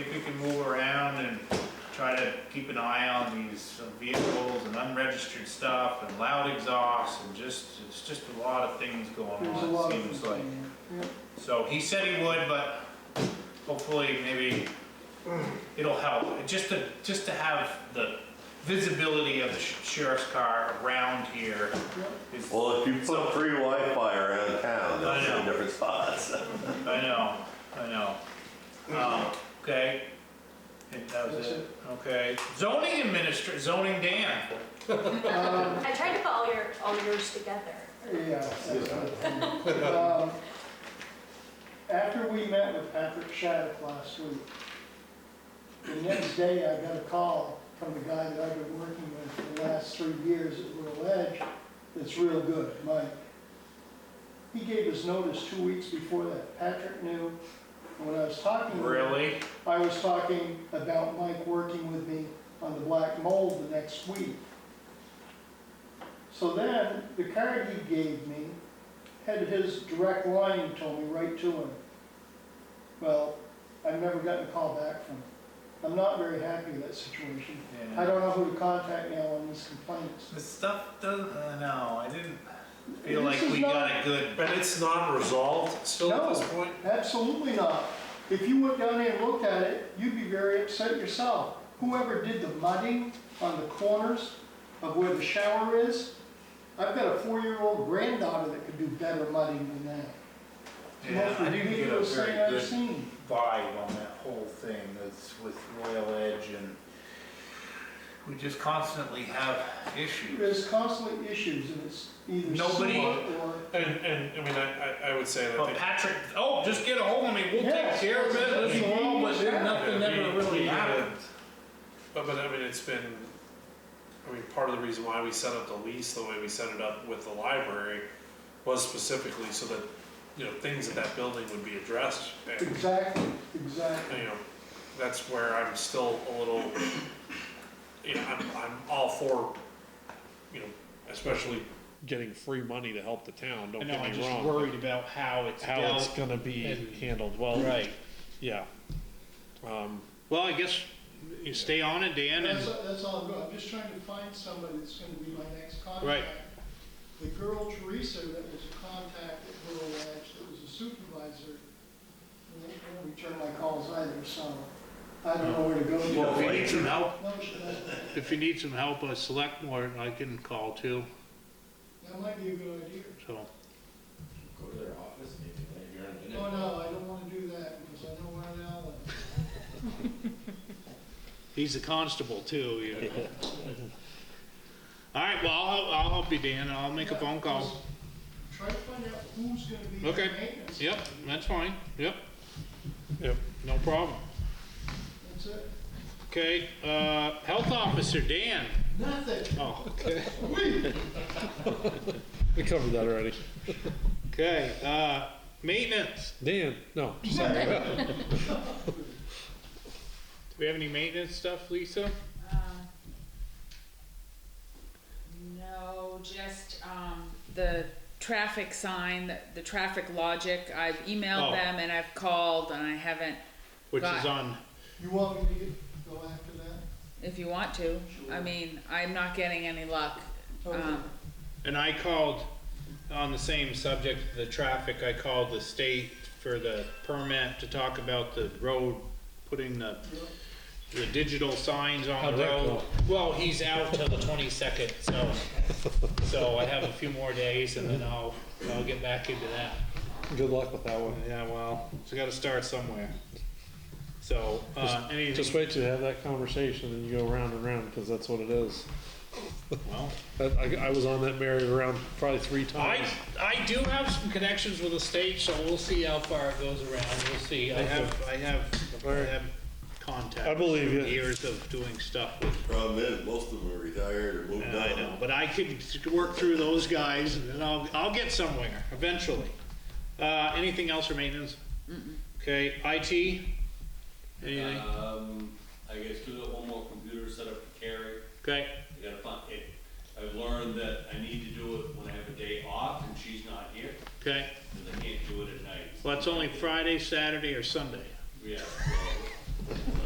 gotta keep an eye on these vehicles and unregistered stuff and loud exhaust and just, it's just a lot of things going There's a lot on, of it things seems going like. on. So he said he would, but hopefully maybe it'll help, just to, just to have the visibility of the sh- sheriff's car around here is, Well, if you put free Wi-Fi around town, I they'll know. be different spots. I know, I know. Um, Okay, and that was That's it, okay. Zoning administr, zoning Dan, Um, I tried to put all your, all yours together. Yeah. that's it. Um, After we met with Patrick Shattuck last week, the next day I got a call from the guy that I've been working with for the last three years at Little Edge, that's real good, Mike. He gave us notice two weeks before that. Patrick knew, and when I was talking to him. really? I was talking about Mike working with me on the black mold the next week. So then, the card he gave me had his direct line, told me right to him. Well, I've never gotten a call back from him. I'm not very happy with that situation. I Yeah. don't know who to contact now on these complaints. This stuff doesn't, uh, no, I didn't feel This like is we not- got a good, But it's not resolved still at this point? Absolutely not. If you went down there and looked at it, you'd be very upset yourself. Whoever did the mudding on the corners of where the shower is, I've got a four-year-old granddaughter that could do better mudding than that. It's the yeah, most I didn't get a ridiculous thing very I've good seen. vibe on that whole thing that's with Royal Edge and we just constantly have issues. There's constantly issues and it's either Nobody- sewer or. And, and, I mean, I, I- I would say that. But the- Patrick, oh, just get a hold of me, we'll take Yes, care of it, this yes, and all, but then yes. nothing ever We- really we, uh, happened. But, but I mean, it's been, I mean, part of the reason why we set up the lease the way we set it up with the library was specifically so that, you know, things in that building would be addressed. And, Exactly, exactly. you know, that's where I'm still a little, you know, I'm, I'm all for, you know, especially getting free money to help the town, don't I know, I'm get me just wrong. worried about how it's how it's dealt. gonna be and- handled. Well, Right. yeah. Um, Well, I guess you stay on it, Dan, That's, and that's all I'm doing, I'm just trying to find somebody that's gonna be my next contact. Right. The girl Teresa that was a contact at Willow Edge, that was a supervisor, won't return my calls either, so I don't know where to go. Well, if you we- No, need some help, she doesn't. if you need some help, a select board I can call too, that might be a good idea. so. Go to their office maybe, maybe you're in a minute. Oh, no, I don't wanna do that, because I know where Al is. He's a constable too, you know. All right, well, I'll, help- I'll help you, Dan, and I'll make a phone call. Try to find out who's gonna be the Okay. maintenance. Yep, that's fine, yep, yep. no problem. That's it. Okay, uh, health officer, Dan. Nothing, Oh, okay. we, We covered that already. Okay, uh, maintenance. Dan, no. Do we have any maintenance stuff, Lisa? Um, No, just, um, the traffic sign, the, the traffic logic, I've Oh. emailed them and I've called and I haven't, Which is Right. on, you want me to get- go after that? if you want to. I mean, I'm not getting any luck. Um, and I called, on the same subject, the traffic, I called the state for the permit to talk about the road, putting the, the digital signs on How'd the that road. Well, he's out till the twenty-second, so, so I have a few more days and then I'll, I'll get back into that. Good luck with that one. Yeah, well, so gotta start somewhere. So, uh, Just anything, wait till you have that conversation and you go round and round because that's what it is. well. I, I, I was on that merry-go-round probably three I, times. I do have some connections with the state, so we'll see how far it goes around, we'll see, I have, I have, I have contacts. I believe you. Years of doing stuff with, Problem is, most of them are retired or moved on. I know, but I could work through those guys, and then I'll, I'll get somewhere, eventually. Uh, anything else for maintenance? Okay, IT? Anything, Um, I guess give it one more computer set up to carry. okay, I gotta find, it, I've learned that I need to do it when I have a day off and she's not here, okay, cause I can't do it at night. well, it's only Friday, Saturday, or Sunday, Yeah,